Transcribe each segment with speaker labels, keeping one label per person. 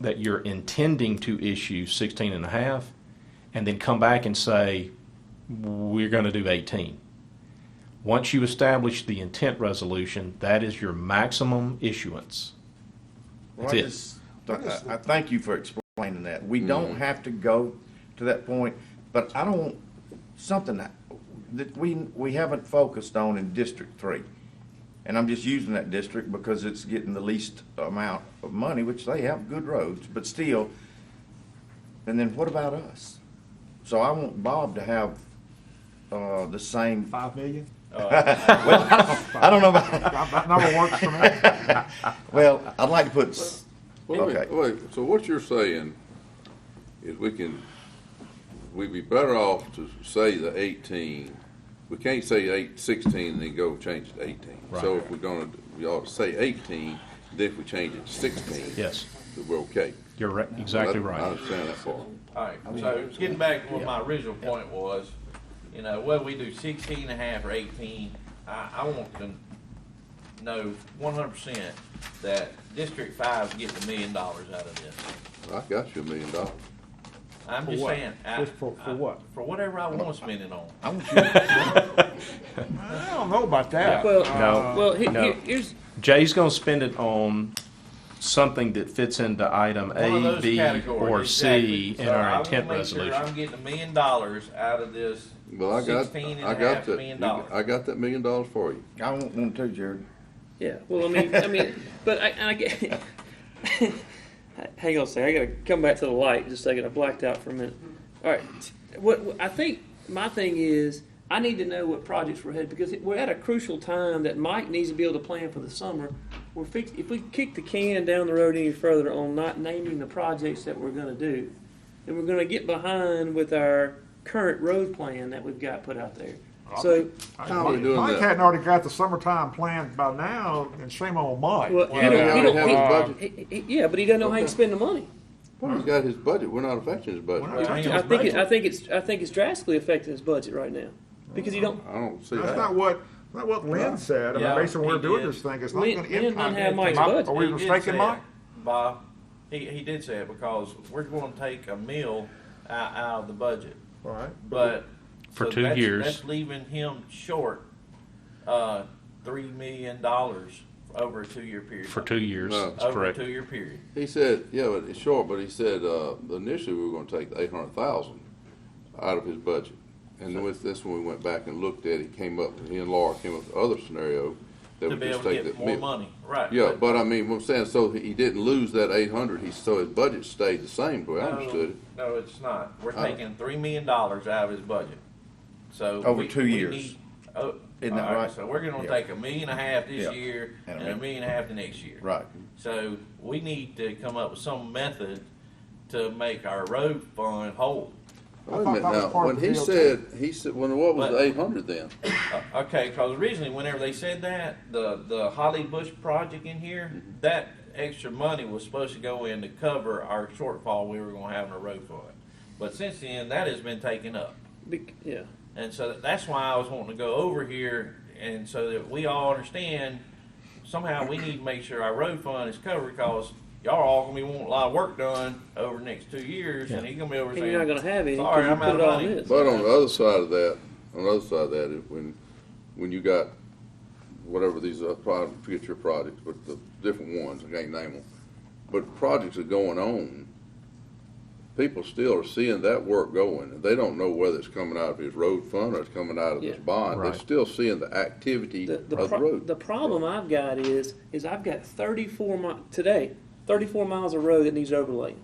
Speaker 1: that you're intending to issue 16 and a half, and then come back and say, we're going to do 18. Once you establish the intent resolution, that is your maximum issuance.
Speaker 2: Well,
Speaker 1: That's
Speaker 2: I
Speaker 1: it.
Speaker 2: just- I- I, I thank you for explaining that. We
Speaker 1: Mm-hmm.
Speaker 2: don't have to go to that point, but I don't, something that, that we, we haven't focused on in District Three. And I'm just using that district because it's getting the least amount of money, which they have good roads, but still. And then what about us? So I want Bob to have, uh, the same,
Speaker 3: Five million?
Speaker 2: I don't know about,
Speaker 3: That that number works for me.
Speaker 2: well, I'd like to put, s-
Speaker 4: Wait, a minute,
Speaker 2: Okay.
Speaker 4: wait, so what you're saying is we can, we'd be better off to say the eighteen. We can't say eight, sixteen, and then go change it to eighteen. So if we're gonna, we ought to say eighteen, then if we change it to sixteen.
Speaker 1: Yes,
Speaker 4: then We're okay.
Speaker 1: you're re- exactly
Speaker 4: That- I
Speaker 1: right.
Speaker 4: understand that part.
Speaker 5: All right, so getting back to what my original point was, you know, whether we do sixteen and a half or eighteen, I, I want to know one hundred percent that District Five gets a million dollars out of this.
Speaker 4: I got you a million dollars.
Speaker 5: I'm
Speaker 3: For
Speaker 5: just
Speaker 3: what?
Speaker 5: saying. I-
Speaker 3: Just for- for
Speaker 5: I-
Speaker 3: what?
Speaker 5: For whatever I want to spend it on.
Speaker 2: I want you to
Speaker 3: I don't know about that.
Speaker 6: Well,
Speaker 1: No,
Speaker 6: well, he-
Speaker 1: no.
Speaker 6: he- here's,
Speaker 1: Jay's going to spend it on something that fits into item
Speaker 5: One of
Speaker 1: A,
Speaker 5: those
Speaker 1: B, or
Speaker 5: categories,
Speaker 1: C in
Speaker 5: exactly. So I
Speaker 1: our
Speaker 5: wanna
Speaker 1: intent
Speaker 5: make sure
Speaker 1: resolution.
Speaker 5: I'm getting a million dollars out of this
Speaker 4: Well, I got,
Speaker 5: sixteen and
Speaker 4: I
Speaker 5: a half
Speaker 4: got that,
Speaker 5: million
Speaker 4: you-
Speaker 5: dollars.
Speaker 4: I got that million dollars for you.
Speaker 2: I want one too, Jared.
Speaker 6: yeah, well, I mean, I mean, but I, and I get, hang on a second, I gotta come back to the light just a second, I blacked out for a minute. All right, what, what- I think, my thing is, I need to know what projects we're ahead, because we're at a crucial time that Mike needs to be able to plan for the summer. We're fix, if we kick the can down the road any further on not naming the projects that we're gonna do, then we're gonna get behind with our current road plan that we've got put out there. So,
Speaker 4: Probably doing
Speaker 3: Mike
Speaker 4: that.
Speaker 3: hadn't already got the summertime planned by now, and shame on Mike.
Speaker 6: well, he
Speaker 4: You know,
Speaker 6: don't,
Speaker 4: he
Speaker 6: he
Speaker 4: already
Speaker 6: don't,
Speaker 4: have
Speaker 6: he-
Speaker 4: his budget.
Speaker 6: He- he- Yeah, but he doesn't know how he can spend the money.
Speaker 4: He's got his budget. We're not affecting his
Speaker 3: We're not
Speaker 4: budget.
Speaker 5: Hang
Speaker 3: touching
Speaker 5: on.
Speaker 6: I
Speaker 3: his
Speaker 6: think it, I
Speaker 3: budget.
Speaker 6: think it's I think it's drastically affecting his budget right now because you don't.
Speaker 4: I don't see
Speaker 3: That's
Speaker 4: that.
Speaker 3: not what, that's not what Lynn said, I mean,
Speaker 5: Yeah,
Speaker 3: based on where
Speaker 5: he
Speaker 3: we're doing
Speaker 5: did.
Speaker 3: this thing, it's not
Speaker 6: Lynn-
Speaker 3: gonna
Speaker 6: Lynn
Speaker 3: impact.
Speaker 6: don't have
Speaker 3: anything.
Speaker 6: Mike's
Speaker 3: Am I-
Speaker 6: budget.
Speaker 3: Are we
Speaker 5: He did
Speaker 3: mistaken,
Speaker 5: say
Speaker 3: Mike?
Speaker 5: it, Bob, he, he did say it because we're going to take a mill out, out of the budget,
Speaker 3: All right.
Speaker 5: but.
Speaker 1: For
Speaker 5: so
Speaker 1: two
Speaker 5: that's-
Speaker 1: years.
Speaker 5: That's leaving him short, uh, three million dollars over a two-year period.
Speaker 1: For two years,
Speaker 4: No.
Speaker 1: that's
Speaker 5: Over a
Speaker 1: correct.
Speaker 5: two-year period.
Speaker 4: He said, yeah, but it's short, but he said, uh, initially we were gonna take the eight hundred thousand out of his budget. And with this, when we went back and looked at it, came up, he and Laura came up with the other scenario that
Speaker 5: To
Speaker 4: would
Speaker 5: be
Speaker 4: just
Speaker 5: able to
Speaker 4: take
Speaker 5: get
Speaker 4: that
Speaker 5: more
Speaker 4: mil-
Speaker 5: money, right.
Speaker 4: Yeah, but I mean, what I'm saying, so he didn't lose that eight hundred, he, so his budget stayed the same, the way I
Speaker 5: No,
Speaker 4: understood it.
Speaker 5: No, it's not. We're
Speaker 4: Oh.
Speaker 5: taking three million dollars out of his budget, so.
Speaker 2: Over
Speaker 5: we-
Speaker 2: two
Speaker 5: we
Speaker 2: years.
Speaker 5: need- oh,
Speaker 2: Isn't that
Speaker 5: all
Speaker 2: right?
Speaker 5: So we're gonna
Speaker 2: Yeah.
Speaker 5: take a million and a half
Speaker 2: Yeah.
Speaker 5: this year
Speaker 2: And
Speaker 5: and
Speaker 2: a
Speaker 5: a
Speaker 2: mil-
Speaker 5: million and a half the next year.
Speaker 2: Right.
Speaker 5: So we need to come up with some method to make our road fund whole.
Speaker 4: Wait a
Speaker 3: thought
Speaker 4: minute
Speaker 3: that was
Speaker 4: now,
Speaker 3: part of
Speaker 4: when
Speaker 3: the
Speaker 4: he
Speaker 3: deal,
Speaker 4: said, he said, well, what was
Speaker 5: But-
Speaker 4: the eight hundred then?
Speaker 5: Uh, Okay, because originally, whenever they said that, the, the Holly Bush project in here, that extra money was supposed to go in to cover our shortfall we were gonna have in the road fund. But since then, that has been taken up.
Speaker 6: bec- Yeah,
Speaker 5: And so that- that's why I was wanting to go over here and so that we all understand somehow we need to make sure our road fund is covered because y'all are all gonna be wanting a lot of work done over the next two years and he's gonna be over
Speaker 6: and
Speaker 5: saying.
Speaker 6: you're not going to have any
Speaker 5: Sorry,
Speaker 6: because you
Speaker 5: I'm out
Speaker 6: put it
Speaker 5: of
Speaker 6: all in
Speaker 5: money.
Speaker 6: this.
Speaker 4: But on the other side of that, on the other side of that, if- when, when you got whatever these are, projects, forget your projects, but the different ones, I can't name them. But projects are going on, people still are seeing that work going, and they don't know whether it's coming out of his road fund or it's coming out of this
Speaker 6: Yeah.
Speaker 4: bond. They're
Speaker 1: Right.
Speaker 4: still seeing the activity
Speaker 6: The,
Speaker 4: of
Speaker 6: the,
Speaker 4: the
Speaker 6: pro-
Speaker 4: road.
Speaker 6: the problem I've got is is I've got 34 mi- today 34 miles of road that needs overlay,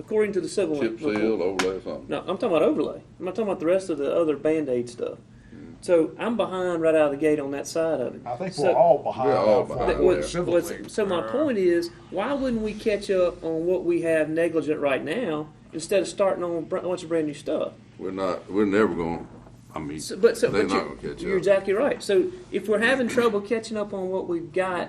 Speaker 6: according to the civil
Speaker 4: Mm. Chip
Speaker 6: report.
Speaker 4: seal, overlay, something.
Speaker 6: No, I'm talking about overlay. I'm not talking about the rest of the other band aid stuff.
Speaker 4: Mm.
Speaker 6: So I'm behind right out of the gate on that side of it.
Speaker 3: I think
Speaker 6: So-
Speaker 3: we're all behind.
Speaker 4: We're all
Speaker 3: on
Speaker 4: behind.
Speaker 6: That
Speaker 3: that.
Speaker 4: Right.
Speaker 6: what-
Speaker 3: Civil
Speaker 6: what's-
Speaker 3: league.
Speaker 6: so my point is, why wouldn't we catch up on what we have negligent right now instead of starting on a br- bunch of brand new stuff?
Speaker 4: We're not, we're never going, I mean,
Speaker 6: So, but so,
Speaker 4: they're
Speaker 6: but
Speaker 4: not
Speaker 6: you're,
Speaker 4: gonna catch
Speaker 6: you're
Speaker 4: up.
Speaker 6: exactly right. So if we're having trouble catching up on what we've got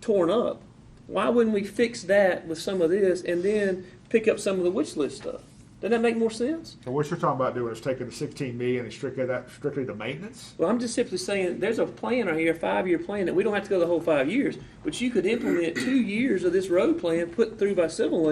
Speaker 6: torn up, why wouldn't we fix that with some of this and then pick up some of the wish list stuff? Doesn't that make more sense?
Speaker 3: So what you're talking about doing is taking the sixteen million and strictly that, strictly to maintenance?
Speaker 6: Well, I'm just simply saying there's a plan right here, a five-year plan that we don't have to go the whole five years, but you could implement two years of this road plan put through by Civil